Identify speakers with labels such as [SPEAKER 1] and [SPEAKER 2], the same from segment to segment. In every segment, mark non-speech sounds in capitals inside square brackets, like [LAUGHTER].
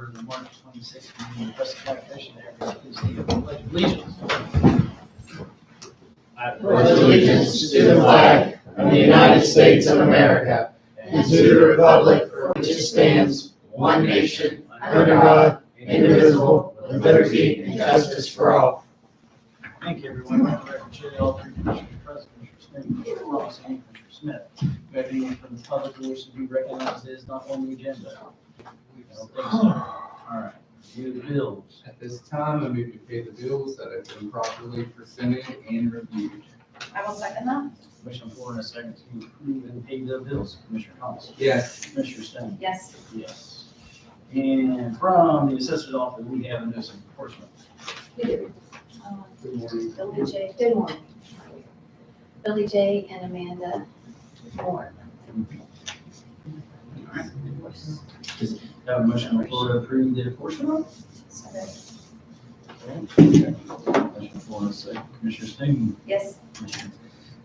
[SPEAKER 1] March twenty-sixth, in the Prescott Park Station area, please stand for the pledge of allegiance.
[SPEAKER 2] pledge allegiance to the flag of the United States of America and to the republic for which it stands, one nation, under God, indivisible, with liberty and justice for
[SPEAKER 3] [CLEARS THROAT]
[SPEAKER 2] all.
[SPEAKER 1] Thank you, everyone. Madam Clerk, Chair Alter, Commissioner Preston, Commissioner Smith, Ross, and Commissioner Smith. Do we have anyone from the public who wishes to be recognized that is not on the agenda? We don't think so. All right, review the bills.
[SPEAKER 4] At this time, I move to pay the bills that have been properly presented and reviewed.
[SPEAKER 5] I will second that.
[SPEAKER 1] Commissioner Ford, a second to approve and pay the bills. Commissioner Thomas.
[SPEAKER 4] Yes.
[SPEAKER 1] Commissioner Stan.
[SPEAKER 5] Yes.
[SPEAKER 1] Yes. And from the assessor's office, we have a notice of enforcement.
[SPEAKER 6] We do. Um,
[SPEAKER 1] Good morning.
[SPEAKER 6] Billy J, good morning. Billy J and Amanda Moore.
[SPEAKER 1] Have a motion on the floor to approve the enforcement. Commissioner Ford, a second. uh, Commissioner Stan.
[SPEAKER 5] Yes.
[SPEAKER 1] Commissioner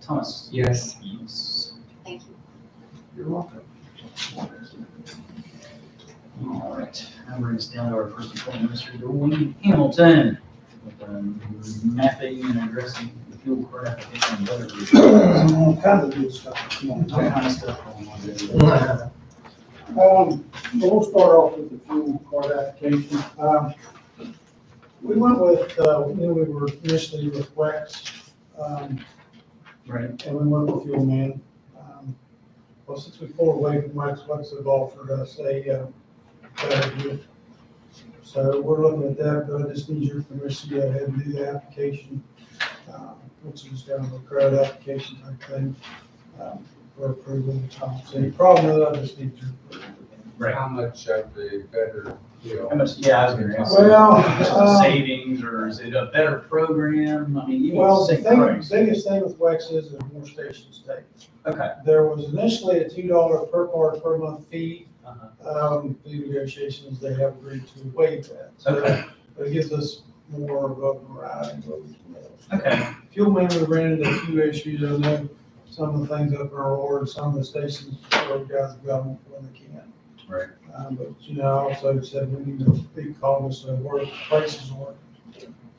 [SPEAKER 1] Thomas.
[SPEAKER 4] Yes.
[SPEAKER 1] Yes.
[SPEAKER 6] Thank you.
[SPEAKER 1] You're welcome. All right, now brings us down to our first appointment, Mr. Dwayne Hamilton, with um, mapping and addressing the fuel card application and weather. report.
[SPEAKER 3] All kinds of good stuff this morning.
[SPEAKER 1] All kind of stuff going on there.
[SPEAKER 3] Um, well, we'll start off with the fuel card application. Um, We went with, uh, we knew we were initially with Wex, um,
[SPEAKER 1] Right,
[SPEAKER 3] and we went with Fuel Man. Um, Well, since we pulled away from Wex, Wex have offered us a, uh, better deal. So we're looking at that, but I just need your permission to go ahead and do the application, uh, which is down to the credit application type thing, um, for approval of the Tom City. Problem is, I just need your approval.
[SPEAKER 1] right.
[SPEAKER 4] How much of the better
[SPEAKER 1] How
[SPEAKER 4] deal?
[SPEAKER 1] much, yeah, I was gonna ask.
[SPEAKER 3] Well,
[SPEAKER 1] Just
[SPEAKER 3] um,
[SPEAKER 1] the Savings, or is it a better program? I mean, you need to
[SPEAKER 3] Well, the
[SPEAKER 1] say
[SPEAKER 3] thing,
[SPEAKER 1] price.
[SPEAKER 3] biggest thing with Wex is there's more stations take.
[SPEAKER 1] Okay.
[SPEAKER 3] There was initially a two dollar per card per month fee,
[SPEAKER 1] Uh-huh.
[SPEAKER 3] um, the negotiations, they have agreed to waive that. So
[SPEAKER 1] Okay,
[SPEAKER 3] it gives us more of a variety. of- uh,
[SPEAKER 1] okay,
[SPEAKER 3] Fuel man, we ran into a few issues, I know some of the things up in our order, some of the stations, our guys have got them when they can.
[SPEAKER 1] Right.
[SPEAKER 3] Um, but, you know, I also said we need to be cognizant of where prices are.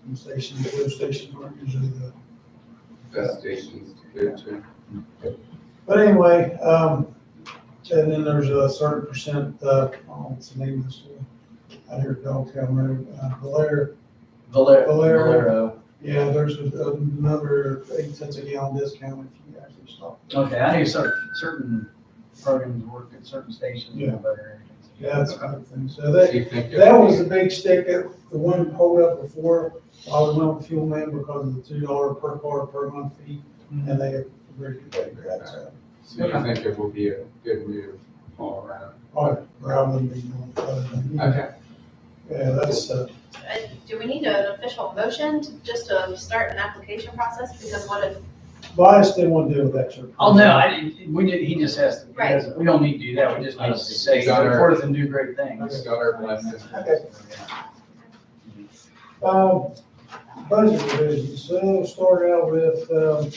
[SPEAKER 3] And stations, those stations aren't usually the
[SPEAKER 4] Best stations to go to?
[SPEAKER 3] But anyway, um, and then there's a certain percent, uh, oh, what's the name of this one? Out here at Dogtown Road, uh, Valera,
[SPEAKER 1] Valer-
[SPEAKER 3] Valero.
[SPEAKER 1] Valero.
[SPEAKER 3] yeah, there's a- another eight cents a gallon discount if you actually stop.
[SPEAKER 1] Okay, I knew certain, certain programs work at certain stations. in
[SPEAKER 3] Yeah.
[SPEAKER 1] Valero.
[SPEAKER 3] Yeah, that's kind of thing. So
[SPEAKER 4] Do
[SPEAKER 3] that,
[SPEAKER 4] you think it-
[SPEAKER 3] that was the big stick, that, the one pulled up before, I was on fuel man because of the two dollar per car per month fee,
[SPEAKER 1] Mm-hmm.
[SPEAKER 3] and they agreed to pay for that, so.
[SPEAKER 4] So you think it will be a good move all around?
[SPEAKER 3] All right, rather than being on the phone.
[SPEAKER 4] Okay.
[SPEAKER 3] Yeah, that's, uh,
[SPEAKER 5] Do we need an official motion to- just to start an application process? Because what if,
[SPEAKER 3] bias didn't want to deal with that, sir.
[SPEAKER 1] Oh, no, I, didn't- we did, he just asked, he
[SPEAKER 5] Right.
[SPEAKER 1] doesn't- we don't need to do that, we just need to say,
[SPEAKER 4] Got
[SPEAKER 1] go
[SPEAKER 4] her.
[SPEAKER 1] forth and do great
[SPEAKER 4] We
[SPEAKER 1] things.
[SPEAKER 4] just got our blessings.
[SPEAKER 3] Okay. Um, budget revisions, so we'll start out with, um,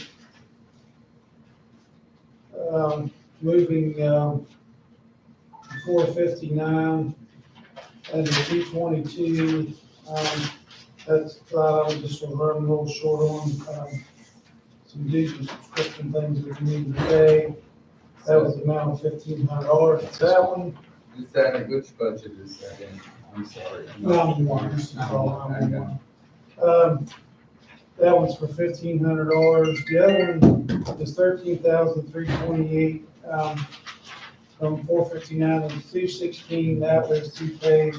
[SPEAKER 3] um, moving, um, four fifty-nine and the two twenty-two, um, that's, uh, just gonna run a little short on, um, some dues and subscription things that we need to pay. That was the amount of fifteen hundred dollars, that one,
[SPEAKER 4] Is that, in- which budget is that in? I'm sorry.
[SPEAKER 3] round one, this is all round one. Um, that one's for fifteen hundred dollars, the other one is thirteen thousand three twenty-eight, um, from four fifty-nine to two sixteen, that was to pay,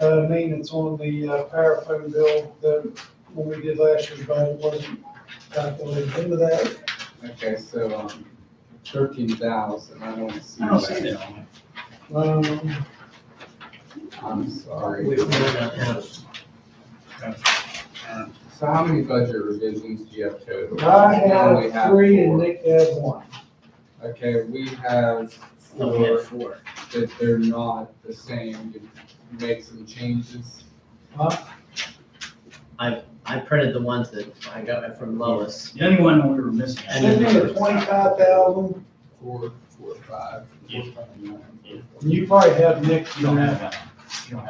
[SPEAKER 3] uh, maintenance on the, uh, power phone bill that, when we did last year, but it wasn't calculated into that.
[SPEAKER 4] Okay, so, um, thirteen thousand, I don't see
[SPEAKER 1] I don't see
[SPEAKER 4] that.
[SPEAKER 1] that.
[SPEAKER 3] Um,
[SPEAKER 4] I'm sorry.
[SPEAKER 1] We- we don't know. Uh,
[SPEAKER 4] So how many budget revisions do you have total?
[SPEAKER 3] I
[SPEAKER 4] We only
[SPEAKER 3] had
[SPEAKER 4] have
[SPEAKER 3] three and
[SPEAKER 4] four.
[SPEAKER 3] Nick had one.
[SPEAKER 4] Okay, we have
[SPEAKER 1] No, Oh, we had
[SPEAKER 4] four
[SPEAKER 1] four.
[SPEAKER 4] that they're not the same, you make some changes.
[SPEAKER 7] I printed the ones that I got from Lois.
[SPEAKER 1] The only one we were missing.
[SPEAKER 7] And
[SPEAKER 3] Should
[SPEAKER 7] then
[SPEAKER 3] be the twenty-five thousand,
[SPEAKER 4] Four, four, five, four,
[SPEAKER 1] Yeah.
[SPEAKER 4] five, nine, four,
[SPEAKER 3] and you probably have Nick's.
[SPEAKER 1] You don't have that. You don't have